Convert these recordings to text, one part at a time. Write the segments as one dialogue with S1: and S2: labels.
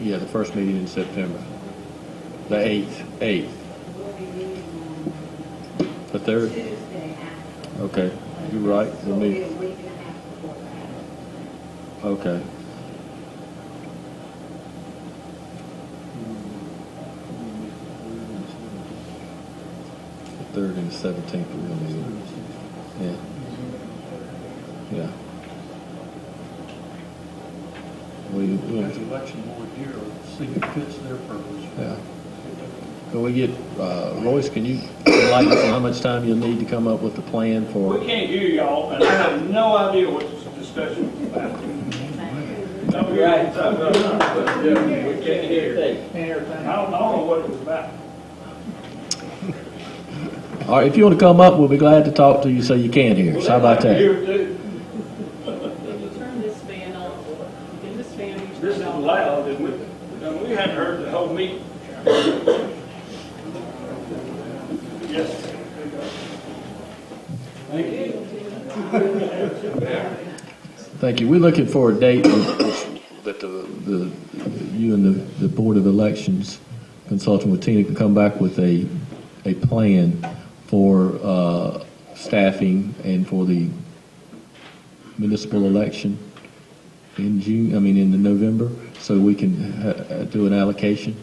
S1: Yeah, the first meeting in September, the 8th, 8th.
S2: We'll be meeting
S1: But
S2: on
S1: there,
S2: Tuesday after.
S1: okay, you're right,
S2: So
S1: we'll
S2: it'll be
S1: meet,
S2: a week and a half before that.
S1: okay. The 3rd and the 17th, we're gonna meet, yeah, yeah. We,
S3: We have
S1: yeah.
S3: the election board here, see if it fits their purpose.
S1: Yeah. Can we get, uh, Royce, can you enlighten us on how much time you'll need to come up with the plan
S4: We
S1: for?
S4: can't hear y'all, and I have no idea what this discussion was about. I'm here
S5: Right.
S4: outside, but I'm not, uh, but, yeah,
S5: We
S4: we can't hear. I don't,
S5: Everything.
S4: I don't know what it was about.
S1: All right, if you want to come up, we'll be glad to talk to you so you can hear us. How about
S4: Well, they
S1: that?
S4: like to hear it too.
S6: Can you turn this fan on? Can this fan be
S4: This is
S6: turned on?
S4: loud, and we, and we hadn't heard the whole meeting. Yes. Thank you.
S1: Thank you. We're looking for a date that the, the, you and the, the Board of Elections consulting with Tina can come back with a, a plan for, uh, staffing and for the municipal election in June, I mean, in the November, so we can uh, uh, do an allocation.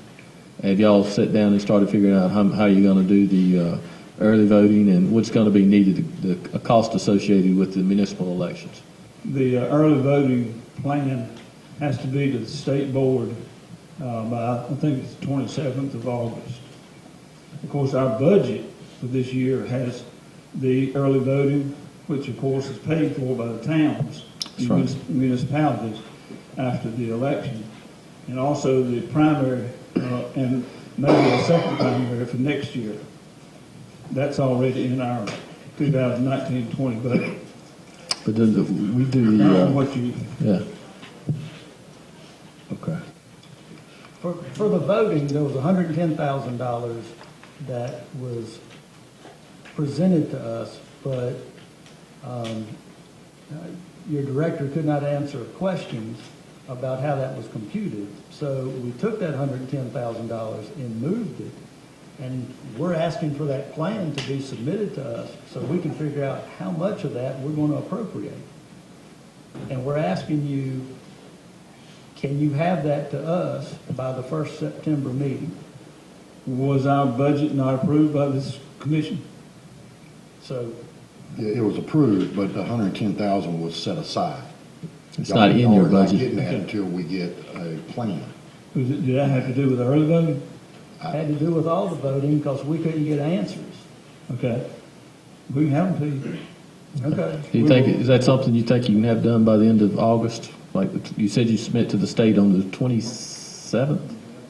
S1: Have y'all sit down and started figuring out how, how you're gonna do the, uh, early voting and what's gonna be needed, the, the cost associated with the municipal elections?
S7: The uh, early voting plan has to be to the state board uh, by, I think it's 27th of August. Of course, our budget for this year has the early voting, which of course is paid for by the towns,
S1: That's right.
S7: munis- municipalities after the election, and also the primary uh, and maybe a second primary for next year. That's already in our 2019-20 budget.
S1: But then the, we do
S7: I
S1: the,
S7: don't know
S1: uh,
S7: what you
S1: yeah. Okay.
S5: For, for the voting, there was hundred and ten thousand dollars that was presented to us, but, um, uh, your director could not answer questions about how that was computed. So we took that hundred and ten thousand dollars and moved it. And we're asking for that plan to be submitted to us so we can figure out how much of that we're going to appropriate. And we're asking you, can you have that to us by the first September meeting?
S7: Was our budget not approved by this commission?
S5: So
S8: Yeah, It was approved, but the hundred and ten thousand was set aside.
S1: It's not in your
S8: Y'all are not
S1: budget.
S8: getting that until we get a plan.
S7: Was it, did that have to do with early voting?
S5: had to do with all the voting because we couldn't get answers.
S7: Okay. We can have them to you.
S5: Okay.
S1: Do you
S5: we
S1: think,
S5: will-
S1: is that something you think you can have done by the end of August? Like, you said you submit to the state on the 27th?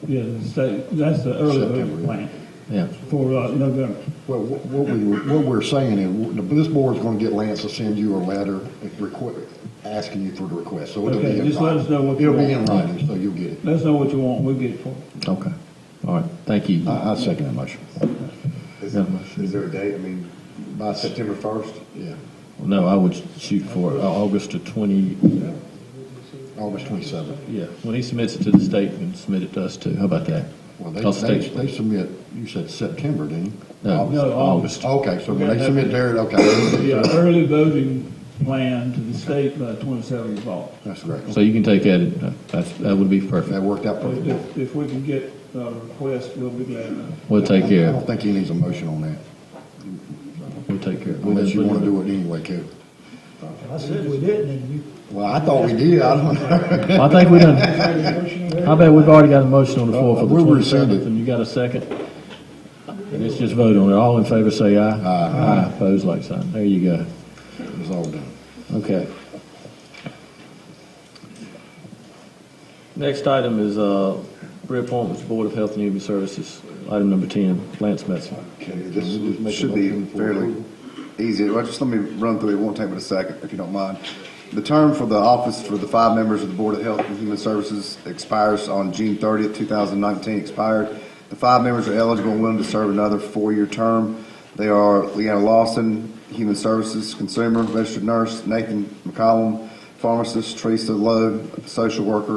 S7: Yeah, the state, that's the early voting
S8: September.
S7: plan
S1: Yeah,
S7: for uh, November.
S8: Well, wh- what we, what we're saying is, this board's gonna get Lance to send you a letter requ- asking you for the request, so it'll be in
S7: Okay,
S8: writing.
S7: just let us know what you
S8: It'll be in
S7: want.
S8: writing, so you'll get it.
S7: Let us know what you want, we'll get it for you.
S1: okay. All right, thank you.
S8: I, I second that motion.
S9: Is
S1: Yeah.
S9: is there a date, I mean,
S8: By Sep-
S9: September 1st?
S8: yeah,
S1: No, I would shoot for uh, August to 20,
S8: August twenty-seventh.
S1: yeah, when he submits it to the state, and submit it to us too. How about that?
S8: Well, they,
S1: Us
S8: they,
S1: state.
S8: they submit, you said September, didn't you?
S1: No,
S7: No,
S1: August.
S8: Okay, so when
S7: Yeah,
S8: they
S7: that-
S8: submit their, okay,
S7: Yeah, early voting plan to the state by 27th of August.
S8: that's correct.
S1: So you can take that, uh, that's- that would be
S8: That
S1: perfect.
S8: worked out
S7: If-
S8: perfectly.
S7: If, if we can get uh, a request, we'll be glad enough.
S1: We'll take care
S8: I
S1: of
S8: don't
S1: it.
S8: think he needs a motion on that,
S1: We'll take care of it.
S8: unless you want to do it anyway, Kevin.
S5: I said we didn't, and you.
S8: Well, I thought we did, I don't know.
S1: Well, I think we done, I bet we've already got a motion on the floor for the
S8: We'll
S1: 27th,
S8: rescind it.
S1: and you got a second? And it's just vote on it. All in favor, say aye. Aye. Aye, pose like sign. There you go.
S8: It was all done.
S1: Okay. Next item is uh, reappointment to Board of Health and Human Services, item number 10, Lance Metzger.
S9: This should be fairly easy. Well, just let me run through it. It won't take but a second, if you don't mind. The term for the office for the five members of the Board of Health and Human Services expires on June 30th, 2019, expired. The five members are eligible and willing to serve another four-year term. They are Leanna Lawson, Human Services Consumer, Registered Nurse, Nathan McCollum, Pharmacist, Teresa Lowe, Social Worker,